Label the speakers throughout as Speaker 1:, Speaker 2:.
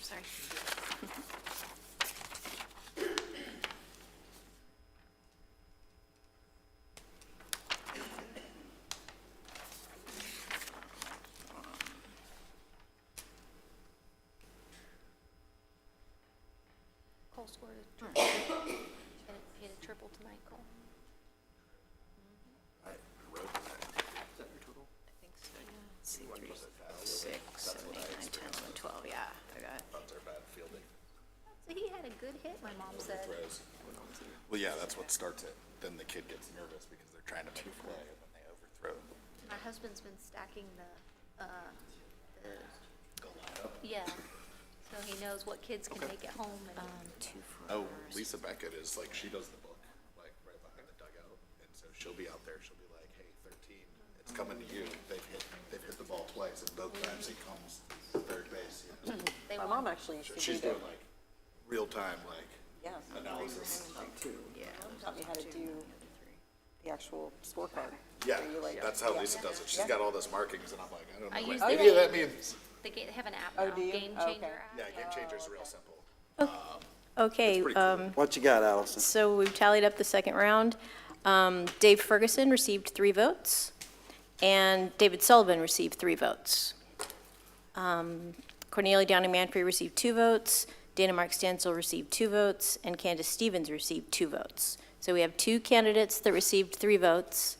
Speaker 1: sorry.
Speaker 2: Cole scored a
Speaker 3: Hmm.
Speaker 2: triple. Hit a- Hit a triple tonight, Cole.
Speaker 1: C three, six, seven, eight, nine, ten, eleven, twelve, yeah, I got.
Speaker 2: So he had a good hit, my mom said.
Speaker 3: Well, yeah, that's what starts it. Then the kid gets nervous because they're trying to make a play and then they overthrow.
Speaker 2: My husband's been stacking the, uh, the, yeah. So he knows what kids can make at home
Speaker 4: Um,
Speaker 2: and
Speaker 1: Two, four.
Speaker 3: Oh, Lisa Beckett is like, she does the book, like right behind the dugout. And so she'll be out there, she'll be like, hey, thirteen, it's coming to you. They've hit, they've hit the ball twice and both times he comes third base. you know.
Speaker 2: they
Speaker 4: My mom
Speaker 2: want.
Speaker 4: actually used to
Speaker 3: So
Speaker 4: do
Speaker 3: She's
Speaker 4: that.
Speaker 3: doing like real time, like
Speaker 4: Yeah,
Speaker 3: analysis.
Speaker 1: Yeah.
Speaker 4: taught me how to do the actual scorecard.
Speaker 3: Yeah,
Speaker 4: So you like-
Speaker 3: that's how
Speaker 4: yeah.
Speaker 3: Lisa does it. She's got all those markings and I'm like, I
Speaker 2: I
Speaker 3: don't know.
Speaker 2: use
Speaker 3: what
Speaker 2: the
Speaker 3: Any of that
Speaker 2: game.
Speaker 3: means.
Speaker 2: They get, have an app
Speaker 4: Oh,
Speaker 2: now,
Speaker 4: do you?
Speaker 2: Game
Speaker 4: Okay.
Speaker 2: Changer app. Uh,
Speaker 3: Yeah, Game Changer's real simple.
Speaker 5: Okay, uh,
Speaker 3: Pretty cool.
Speaker 6: What you got, Allison?
Speaker 5: so we've tallied up the second round. Um, Dave Ferguson received three votes, and David Sullivan received three votes. Um, Cornelia Downing Manfrey received two votes, Dana Mark Stansel received two votes, and Candace Stevens received two votes. So we have two candidates that received three votes,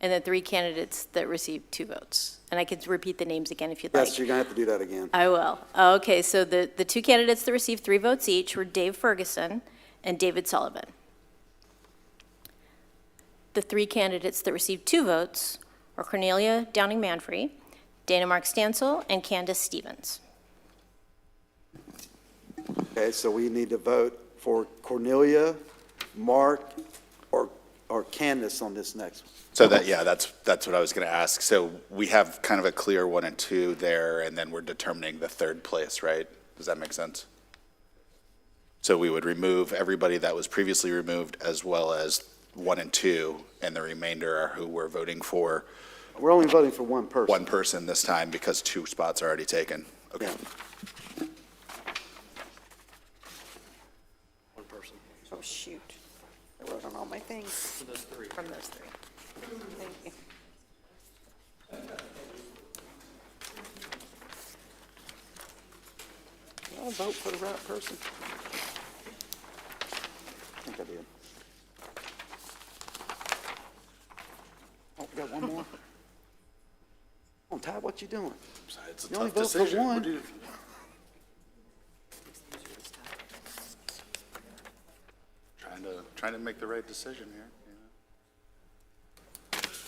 Speaker 5: and then three candidates that received two votes. And I can repeat the names again if you'd like.
Speaker 6: Yes, you're gonna have to do that again.
Speaker 5: I will. Okay, so the, the two candidates that received three votes each were Dave Ferguson and David Sullivan. The three candidates that received two votes were Cornelia Downing Manfrey, Dana Mark Stansel, and Candace Stevens.
Speaker 6: Okay, so we need to vote for Cornelia, Mark, or, or Candace on this next one.
Speaker 3: So that, yeah, that's, that's what I was going to ask. So we have kind of a clear one and two there, and then we're determining the third place, right? Does that make sense? So we would remove everybody that was previously removed as well as one and two, and the remainder are who we're voting for.
Speaker 6: We're only voting for one person.
Speaker 3: One person this time because two spots are already taken. Okay.
Speaker 4: Oh, shoot. I wrote on all my things. From those three. From those three. Thank you.
Speaker 6: Did I vote for the right person? I think I did. Oh, we got one more? Come on, Oh, Ty, what you doing?
Speaker 3: It's a
Speaker 6: You only
Speaker 3: tough
Speaker 6: vote for
Speaker 3: decision.
Speaker 6: one.
Speaker 3: Trying to, trying to make the right decision here.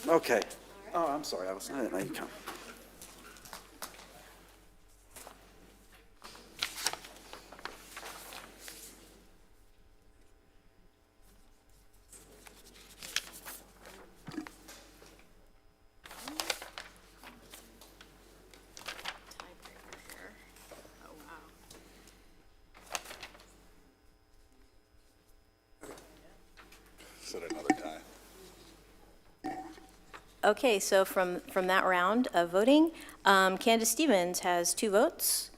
Speaker 3: you know?
Speaker 6: Okay. Oh, I'm sorry, Allison, I didn't know you come.
Speaker 1: Oh, wow.
Speaker 3: Set another time.
Speaker 5: Okay, so from, from that round of voting, um, Candace Stevens has two votes,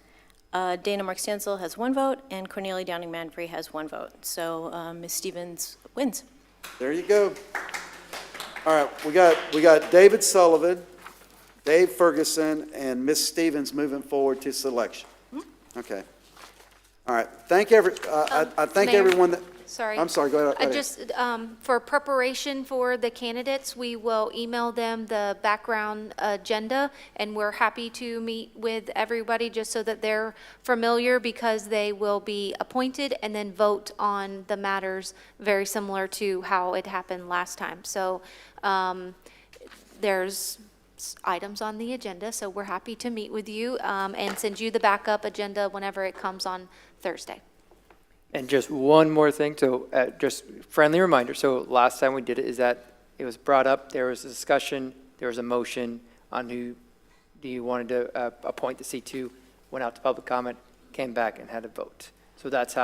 Speaker 5: uh, Dana Mark Stansel has one vote, and Cornelia Downing Manfrey has one vote. So uh, Ms. Stevens wins.
Speaker 6: There you go. All right, we got, we got David Sullivan, Dave Ferguson, and Miss Stevens moving forward to selection.
Speaker 2: Hmm?
Speaker 6: Okay. All right, thank every, I, Uh, I- I thank
Speaker 2: Um, Mayor,
Speaker 6: everyone that.
Speaker 2: Sorry.
Speaker 6: I'm sorry, go ahead.
Speaker 2: I
Speaker 6: go ahead.
Speaker 2: just, um, for preparation for the candidates, we will email them the background agenda, and we're happy to meet with everybody just so that they're familiar, because they will be appointed and then vote on the matters very similar to how it happened last time. So, um, there's s- items on the agenda, so we're happy to meet with you, um, and send you the backup agenda whenever it comes on Thursday.
Speaker 7: And just one more thing, so, uh, just friendly reminder, so last time we did it is that it was brought up, there was a discussion, there was a motion on who, do you wanted to, uh, appoint the C two, went out to public comment, came back and had a vote. So that's how